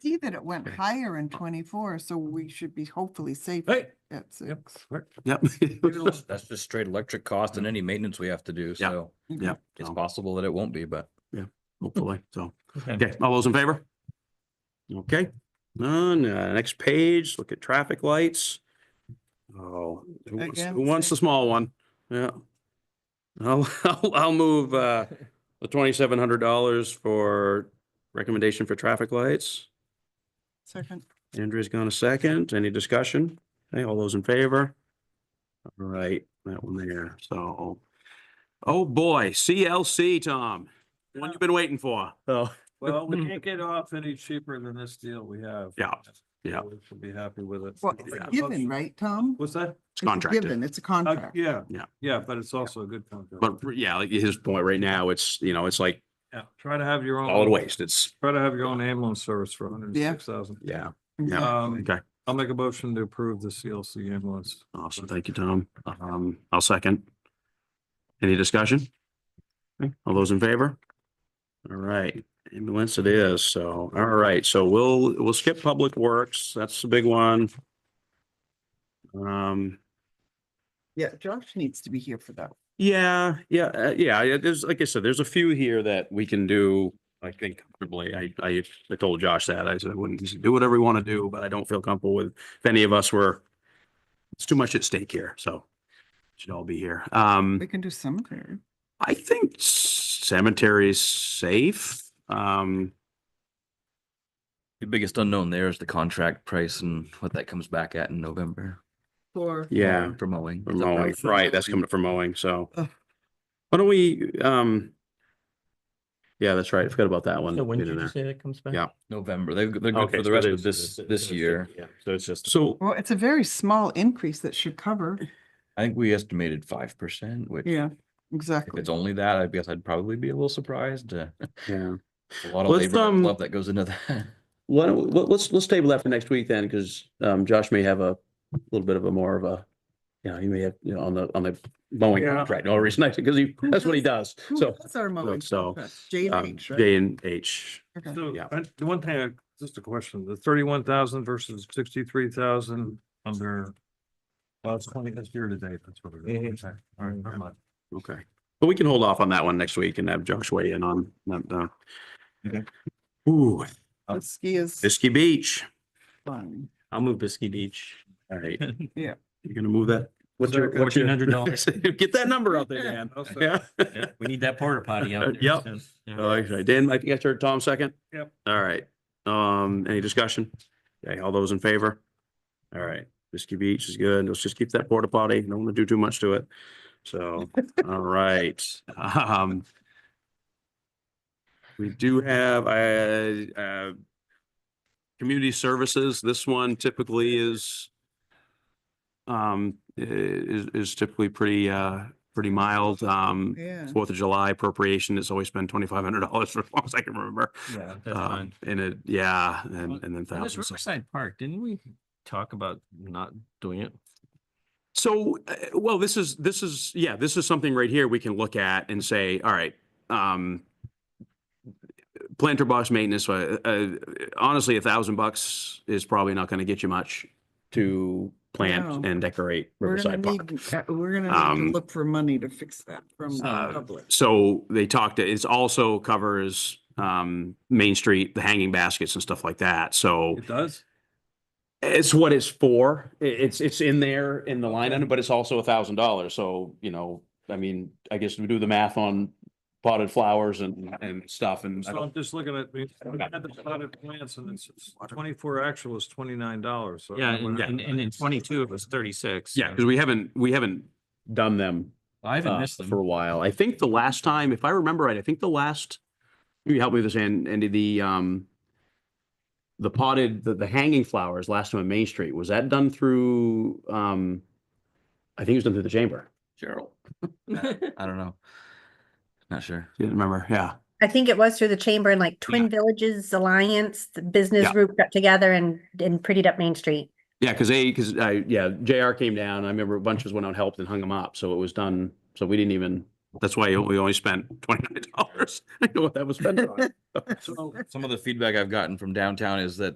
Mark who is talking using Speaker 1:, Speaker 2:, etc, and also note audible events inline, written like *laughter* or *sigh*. Speaker 1: see that it went
Speaker 2: Okay.
Speaker 1: higher in twenty-four, so we should be hopefully safe
Speaker 2: Hey,
Speaker 1: at
Speaker 2: yep,
Speaker 1: six.
Speaker 2: correct.
Speaker 3: Yep. *laughs*
Speaker 4: That's just straight electric cost and any maintenance we have to do,
Speaker 3: Yeah.
Speaker 4: so
Speaker 3: Yep.
Speaker 4: it's
Speaker 3: So,
Speaker 4: possible that it won't be, but.
Speaker 3: Hopefully, so.
Speaker 2: Okay.
Speaker 3: Okay, all those in favor? Okay, none, uh, next page, look at traffic lights. Oh, who wants-
Speaker 1: Again,
Speaker 3: who wants the
Speaker 1: same.
Speaker 3: small one? Yeah. I'll, *laughs* I'll, I'll move, uh, the twenty-seven hundred dollars for recommendation for traffic lights.
Speaker 1: Second,
Speaker 3: Andrea's gone a second, any discussion? Okay, all those in favor? All right, that one there, so. Oh, boy, CLC, Tom, one you've been waiting for, so.
Speaker 5: Well, we
Speaker 3: *laughs*
Speaker 5: can't get off any cheaper than this deal we have.
Speaker 3: Yeah, yeah.
Speaker 5: We should be happy with it.
Speaker 1: well, it's a given, right, Tom?
Speaker 5: What's that?
Speaker 3: It's
Speaker 1: It's a
Speaker 3: contracted.
Speaker 1: Given, it's a
Speaker 5: Uh,
Speaker 1: contract.
Speaker 5: Yeah.
Speaker 3: Yeah.
Speaker 5: Yeah, but it's also a good contract.
Speaker 3: But r- yeah, like his point right now, it's, you know, it's like
Speaker 5: Yeah, try to have your own.
Speaker 3: solid waste. It's,
Speaker 5: Try to have your own ambulance service for hundred and six thousand.
Speaker 3: yeah.
Speaker 1: Yeah.
Speaker 5: Um,
Speaker 3: Okay.
Speaker 5: I'll make a motion to approve the CLC ambulance.
Speaker 3: Awesome. Thank you, Tom. Um, I'll second. Any discussion? Okay, All those in favor? All right, ambulance it is. So, all right, so we'll, we'll skip Public Works. That's the big one. Um,
Speaker 1: Yeah, Josh needs to be here for that.
Speaker 3: yeah, yeah, uh, yeah, yeah, there's, like I said, there's a few here that we can do, I think comfortably. I, I, I told Josh that. I said, wouldn't, he said, do whatever you want to do, but I don't feel comfortable with, if any of us were, it's too much at stake here, so should all be here. Um,
Speaker 1: We can do cemetery.
Speaker 3: I think cemetery's safe. Um,
Speaker 4: The biggest unknown there is the contract price and what that comes back at in November.
Speaker 1: Or.
Speaker 3: yeah,
Speaker 4: For mowing.
Speaker 3: for mowing, right, that's coming from mowing, so.
Speaker 1: Ugh.
Speaker 3: Why don't we, um, yeah, that's right. I forgot about that one.
Speaker 2: So when
Speaker 3: being
Speaker 2: did
Speaker 3: in
Speaker 2: you
Speaker 3: there.
Speaker 2: say that comes back?
Speaker 3: Yeah.
Speaker 4: November. They, they're good
Speaker 3: Okay, so
Speaker 4: for the rest
Speaker 3: it
Speaker 4: of
Speaker 3: is-
Speaker 4: this,
Speaker 3: it's-
Speaker 4: this
Speaker 3: it's-
Speaker 4: year.
Speaker 3: yeah, So it's just. So
Speaker 1: Well, it's a very small increase that should cover.
Speaker 4: I think we estimated five percent, which
Speaker 1: Yeah,
Speaker 4: if
Speaker 1: exactly.
Speaker 4: it's only that, I guess I'd probably be a little surprised. uh,
Speaker 3: Yeah.
Speaker 4: A lot of
Speaker 3: Let's,
Speaker 4: labor and
Speaker 3: um,
Speaker 4: love that goes into that.
Speaker 3: Why don't, let- let's, let's table that for next week then, because um, Josh may have a little bit of a more of a, you know, he may have, you know, on the, on the mowing
Speaker 5: Yeah.
Speaker 3: contract, no reason, because he, that's what he does,
Speaker 1: Who
Speaker 3: so.
Speaker 1: does our mowing
Speaker 3: so,
Speaker 1: contracts? J and
Speaker 3: um,
Speaker 1: H, right?
Speaker 3: J and H,
Speaker 1: Okay.
Speaker 5: So,
Speaker 3: Yeah.
Speaker 5: I- the one thing, I just a question, the thirty-one thousand versus sixty-three thousand under. Well, it's twenty, that's year to date, that's what it is. Okay, All right, never mind.
Speaker 3: okay. But we can hold off on that one next week and have Josh weigh in on that. uh,
Speaker 5: Okay.
Speaker 3: Ooh, um,
Speaker 1: The ski is
Speaker 3: Bisky Beach,
Speaker 1: fun.
Speaker 2: I'll move Biscuit Beach.
Speaker 3: all right.
Speaker 1: Yeah.
Speaker 3: You're gonna move that? What's your, what's your?
Speaker 2: $1,400.
Speaker 3: *laughs* Get that number out there, Dan.
Speaker 5: I'll second.
Speaker 3: Yeah.
Speaker 2: We need that porta potty
Speaker 3: *laughs*
Speaker 2: out there.
Speaker 3: Yep.
Speaker 2: soon. Yeah.
Speaker 3: Oh, okay. Dan, I think I heard Tom second?
Speaker 5: Yep.
Speaker 3: All right. Um, any discussion? Okay, all those in favor? All right, Bisky Beach is good. Let's just keep that porta potty. Don't want to do too much to it. So, all right. Um, we do have, uh, uh, community services. This one typically is um, i- is, is typically pretty, uh, pretty mild. Um,
Speaker 1: Yeah.
Speaker 3: Fourth of July appropriation, it's always been twenty-five hundred dollars *laughs* for as long as I can remember.
Speaker 2: Yeah, uh, that's
Speaker 3: Um,
Speaker 2: fine.
Speaker 3: and it, yeah, and, and then
Speaker 2: And This
Speaker 3: thousands. of-
Speaker 2: Riverside Park, didn't we talk about not doing it?
Speaker 3: So, uh, well, this is, this is, yeah, this is something right here we can look at and say, all right, um, planter box maintenance, uh, uh, honestly, a thousand bucks is probably not going to get you much to plant
Speaker 1: No.
Speaker 3: and decorate
Speaker 1: We're gonna
Speaker 3: Riverside Park.
Speaker 1: need, uh, we're gonna need
Speaker 3: Um,
Speaker 1: to look for money to fix that from the
Speaker 3: uh,
Speaker 1: public.
Speaker 3: So they talked, it's also covers, um, Main Street, the hanging baskets and stuff like that. So
Speaker 5: It does?
Speaker 3: It's what it's for. I- It's, it's in there in the line item, but it's also a thousand dollars. So, you know, I mean, I guess we do the math on potted flowers and, and stuff and. I
Speaker 5: So I'm
Speaker 3: don't-
Speaker 5: just looking at, we we had the plotted plants and it's it's twenty-four actual is twenty-nine dollars, so.
Speaker 2: Yeah, and, and and in twenty-two, it was thirty-six.
Speaker 3: Yeah, because we haven't, we haven't done them
Speaker 2: I haven't
Speaker 3: uh,
Speaker 2: missed them.
Speaker 3: for a while. I think the last time, if I remember right, I think the last, you help me with this, An- Andy, the, um, the potted, the, the hanging flowers last time on Main Street, was that done through, um, I think it was done through the chamber.
Speaker 2: *laughs*
Speaker 4: Gerald. I don't know. Not sure.
Speaker 3: Didn't remember, yeah.
Speaker 6: I think it was through the chamber and like Twin Villages Alliance, the business
Speaker 3: Yeah.
Speaker 6: group got together and, and prettied up Main Street.
Speaker 3: Yeah, because they, because I, yeah, JR came down. I remember a bunch of us went out and helped and hung them up. So it was done. So we didn't even, That's why we only spent *laughs* twenty-nine dollars. I know what that was spent on. *laughs*
Speaker 4: Some of the feedback I've gotten from downtown is that